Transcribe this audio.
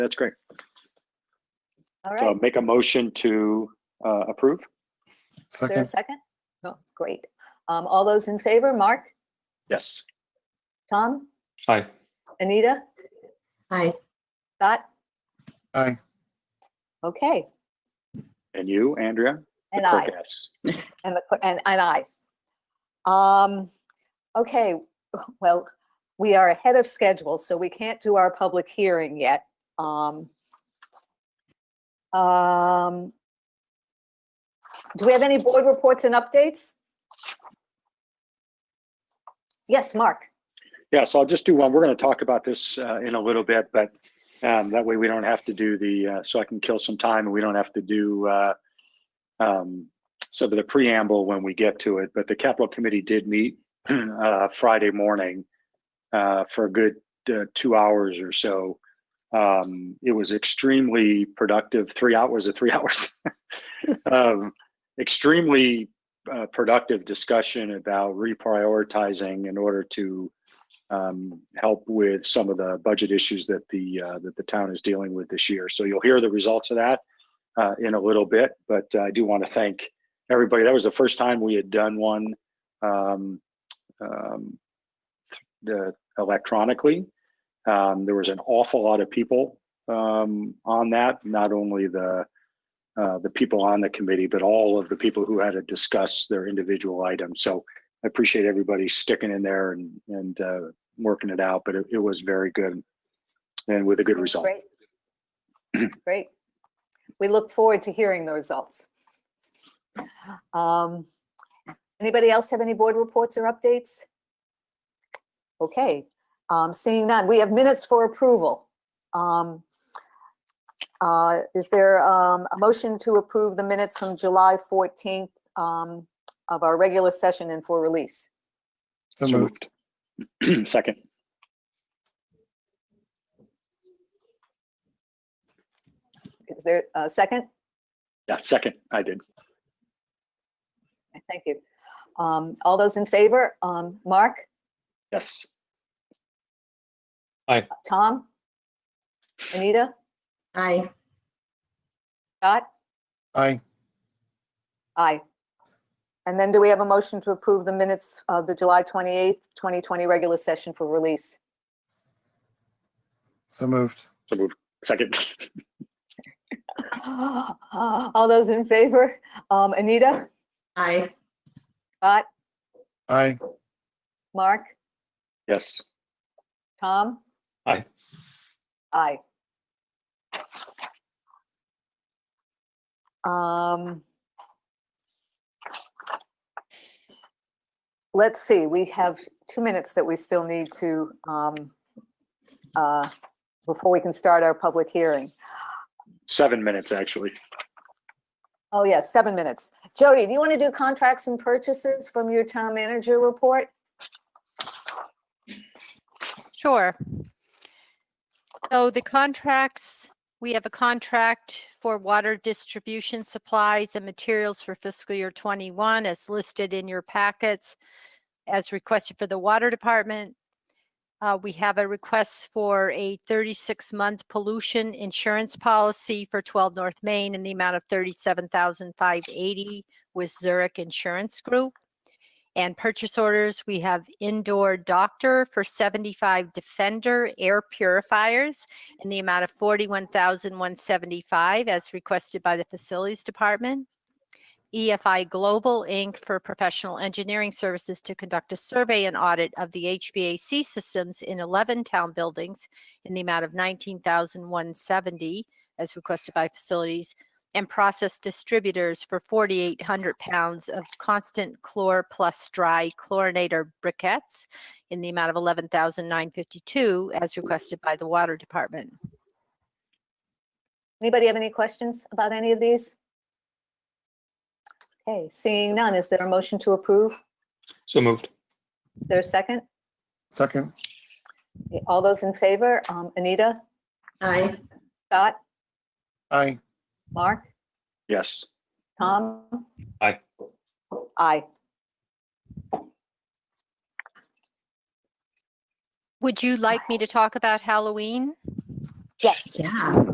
That's great. All So right, make a motion to uh, approve. is there a Second, second? No, great. Um, all those in favor, Mark, Yes. Tom, Aye. Anita, Aye. Scott? Aye. Okay, And you, Andrea? The and clerk I, asks. and the, cl- and, and I. Um, okay, well, we are ahead of schedule, so we can't do our public hearing yet. Um, um, do we have any board reports and updates? Yes, Mark? Yeah, so I'll just do one. We're going to talk about this uh, in a little bit, but um, that way we don't have to do the, uh, so I can kill some time and we don't have to do uh, um, some of the preamble when we get to it. But the capital committee did meet uh, Friday morning uh, for a good uh, two hours or so. Um, It was extremely productive, three hours of three hours. Um, Extremely uh, productive discussion about reprioritizing in order to um, help with some of the budget issues that the uh, that the town is dealing with this year. So you'll hear the results of that uh, in a little bit. But uh, I do want to thank everybody. That was the first time we had done one um, um, th- uh, electronically. Um, there was an awful lot of people um, on that. Not only the uh, the people on the committee, but all of the people who had to discuss their individual items. So I appreciate everybody sticking in there and and uh, working it out, but it, it was very good and with a good result. Great. Great. We look forward to hearing the results. Um, Anybody else have any board reports or updates? Okay, um, seeing none, we have minutes for approval. Um, uh, Is there um, a motion to approve the minutes from July 14th um, of our regular session and for release? so So moved. moved. Second, Is there a second? yeah, second, I did. Thank you. Um, All those in favor? Um, Mark, Yes, Tom? Anita? Aye. Scott? Aye, Aye. And then do we have a motion to approve the minutes of the July 28th, 2020 regular session for release? so moved. so moved. Second, All those in favor? Um, Anita? Aye. Scott? Aye, Mark? yes, Tom? Aye. Aye. Um, let's see, we have two minutes that we still need to, um, uh, before we can start our public hearing. seven minutes actually. Oh, yes, seven minutes. Jody, do you want to do contracts and purchases from your town manager report? Sure. So the contracts, we have a contract for water distribution supplies and materials for fiscal year 21 as listed in your packets as requested for the water department. Uh, We have a request for a 36-month pollution insurance policy for 12 North Main in the amount of 37580 with Zurich Insurance Group. And purchase orders, we have indoor doctor for 75 Defender air purifiers in the amount of 41,175 as requested by the Facilities Department. EFI Global Inc. for professional engineering services to conduct a survey and audit of the HVAC systems in 11 town buildings in the amount of 19,170 as requested by Facilities and process distributors for 4,800 pounds of constant chlor plus dry chlorinator briquettes in the amount of 11,952 as requested by the Water Department. Anybody have any questions about any of these? Okay, seeing none, is there a motion to approve? So moved. Is there a second? second. All those in favor? Um, Anita, Aye. Scott, Aye, Mark, Yes, Tom? Aye. Aye. Would you like me to talk about Halloween? Yes. Yeah.